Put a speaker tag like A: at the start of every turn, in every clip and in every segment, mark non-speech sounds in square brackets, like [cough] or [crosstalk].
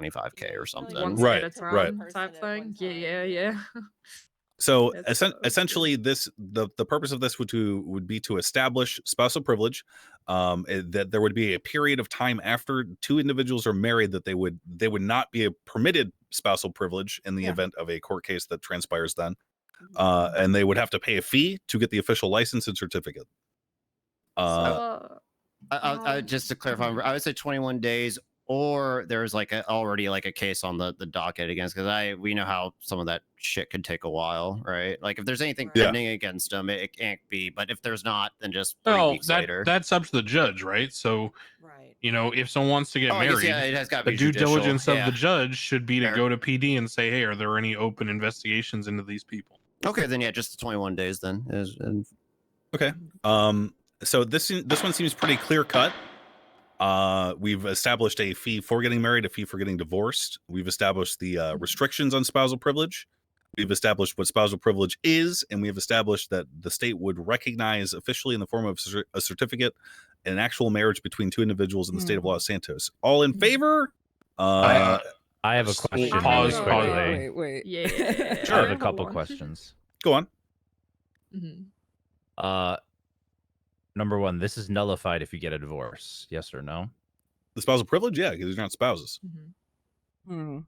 A: 25k or something.
B: once
C: Right,
B: at a
C: right.
B: time type thing. Yeah, yeah, yeah. [laughs]
C: So
B: That's
C: essen-
B: so good.
C: essentially, this the the purpose of this would to would be to establish spousal privilege, um, eh, that there would be a period of time after two individuals are married that they would they would not be a permitted spousal privilege in the
B: Yeah. Mm-hmm.
C: event of a court case that transpires then, uh, and they would have to pay a fee to get the official license and certificate. Uh,
B: So,
D: I, I, I,
B: Um,
D: just to clarify,
B: mhm.
D: I would say 21 days, or there's like a, already like a case on the the docket against because I we know how some of that shit could take a while, right? Like if there's anything
B: Right. Yeah.
D: pending against them, it, it can't be. But if there's not, then just three
E: Well,
D: weeks
E: Oh, that,
D: later.
E: that's up to the judge, right? So,
F: Right.
E: you know, if someone wants to get
D: Oh, I guess,
E: married,
D: yeah, it has got
E: the due diligence of the judge should be to
D: Fair.
E: go to PD and say, "Hey, are there any open investigations into these people?"
D: Okay, then yeah, just the 21 days then. Is, and
C: Um, so this se- this one seems pretty clear cut. Uh, we've established a fee for getting married, a fee for getting divorced. We've established the uh, restrictions on spousal privilege. We've established what spousal privilege is, and we have established that the state would recognize officially in the form of cer- a certificate an actual marriage between two individuals in the state of Los Santos. All in favor? Uh,
G: I have a
E: Just
G: question.
E: pause,
G: really
E: pause. eh?
G: quickly.
F: Wait, wait. [laughs]
B: yeah.
G: I have
C: Sure.
G: a couple
B: One.
G: questions.
C: go on.
B: Mhm.
G: Uh, number one, this is nullified if you get a divorce. Yes or no?
C: The spousal privilege, yeah, because they're not spouses.
B: Mhm.
F: Hmm.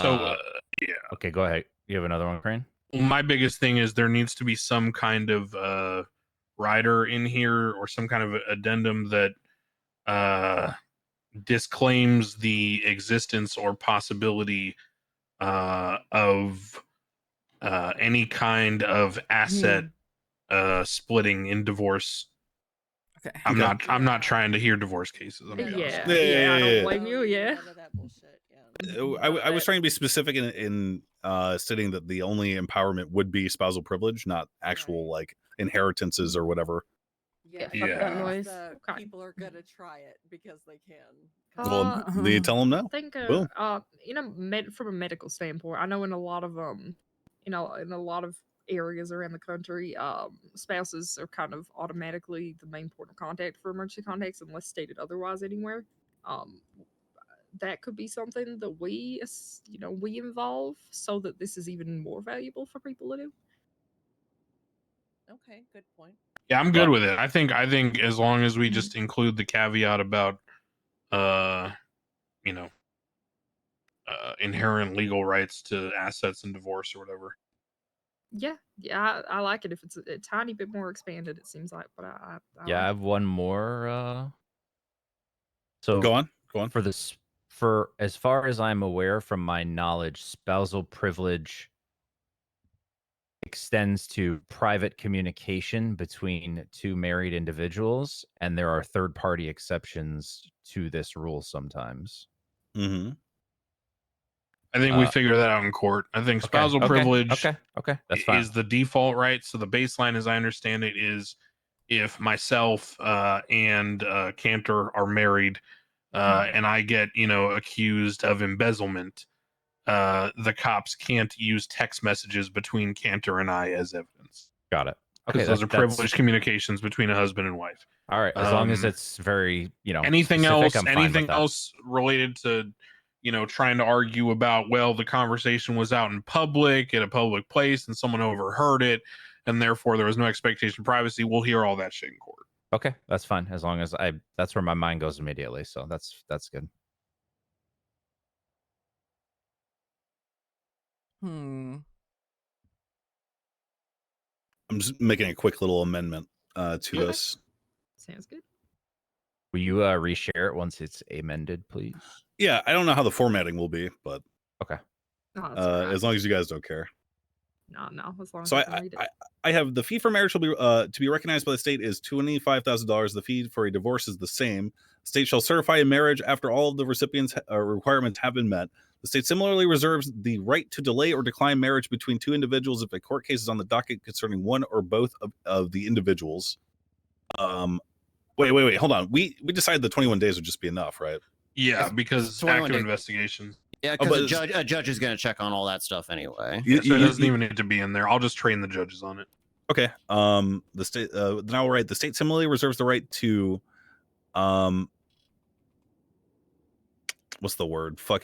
E: So,
G: Uh,
E: uh, yeah.
G: okay, go ahead. You have another one, Crane.
E: my biggest thing is there needs to be some kind of uh rider in here or some kind of addendum that uh disclaims the existence or possibility uh of uh any kind of asset uh splitting in divorce
F: Okay.
E: i'm
C: Okay.
E: not i'm not trying to hear divorce cases I'm
B: Yeah,
E: gonna be honest.
B: yeah,
C: Yeah, yeah,
B: I
C: yeah.
B: don't blame you. Yeah.
F: None of that bullshit. Yeah.
C: Uh,
B: Mm-hmm.
C: I, w- I was trying to be specific in, in uh, stating that the only empowerment would be spousal privilege, not actual like inheritances or whatever.
F: Yeah.
B: fuck that
F: because
B: noise.
F: the
B: Okay.
F: People are gonna try it because they can.
C: Well,
B: Uh,
C: they tell them
B: I
C: no.
B: think, uh,
C: Boom.
B: uh, you know, med- from a medical standpoint, I know in a lot of um, you know, in a lot of areas around the country, um, spouses are kind of automatically the main point of contact for emergency contacts unless stated otherwise anywhere. Um, that could be something that we, as- you know, we involve so that this is even more valuable for people to do.
F: Okay, good point.
E: Yeah, I'm good with it. I think I think as long as we just include the caveat about uh you know uh inherent legal rights to assets and divorce or whatever.
B: Yeah, yeah, I, I like it if it's a, a tiny bit more expanded. It seems like, but I, I, I
G: Yeah, I
B: like
G: have one more. Uh, so
C: Go on, go on.
G: for this, for as far as I'm aware, from my knowledge, spousal privilege extends to private communication between two married individuals, and there are third party exceptions to this rule sometimes.
C: hmm
E: I think we
G: Uh,
E: figure that out in court. I think
G: Okay,
E: spousal
G: okay,
E: privilege
G: Okay, okay, that's
E: i-
G: fine.
E: is the default right. So the baseline as I understand it is if myself uh and uh Cantor are married uh and I get, you know, accused of embezzlement, uh the cops can't use text messages between Cantor and I as evidence.
G: Got it.
E: because
G: that-
E: those are
G: that's-
E: privileged communications between a husband and wife.
G: All right, as long as
E: Um,
G: it's very, you know,
E: anything
G: specific,
E: else?
G: I'm fine with
E: Anything
G: that.
E: else related to, you know, trying to argue about? Well, the conversation was out in public at a public place, and someone overheard it, and therefore there was no expectation of privacy. We'll hear all that shit in court.
G: Okay, that's fine. As long as I, that's where my mind goes immediately. So that's that's good.
F: Hmm.
C: I'm just making a quick little amendment uh, to
B: Okay.
C: this.
B: sounds good.
G: Will you uh, reshare it once it's amended, please?
C: Yeah, I don't know how the formatting will be, but
B: No, Oh, that's
C: uh,
B: alright.
C: as long as you guys don't care.
B: no, no, as long
C: So
B: as
C: I,
B: I, can
C: I,
B: read it.
C: I I have the fee for marriage will be uh, to be recognized by the state is twenty five thousand dollars. The fee for a divorce is the same. State shall certify a marriage after all of the recipients' ha- uh, requirements have been met. The state similarly reserves the right to delay or decline marriage between two individuals if a court case is on the docket concerning one or both of, of the individuals. Um, wait, wait, wait, hold on. We we decided the twenty one days would just be enough, right?
E: Yeah,
D: It's-
E: because
D: it's 21
E: active
D: days.
E: investigation.
D: yeah,
C: Oh,
D: because
C: but
D: a
C: it's-
D: judge a judge is gonna check on all that stuff anyway.
C: You-
E: Yeah, so
C: you-
E: it
C: you-
E: doesn't even need to be in there. I'll just train the judges on it.
C: Okay. Um, the state. Uh, then I'll write the state similarly reserves the right to, um, what's the word? Fuck.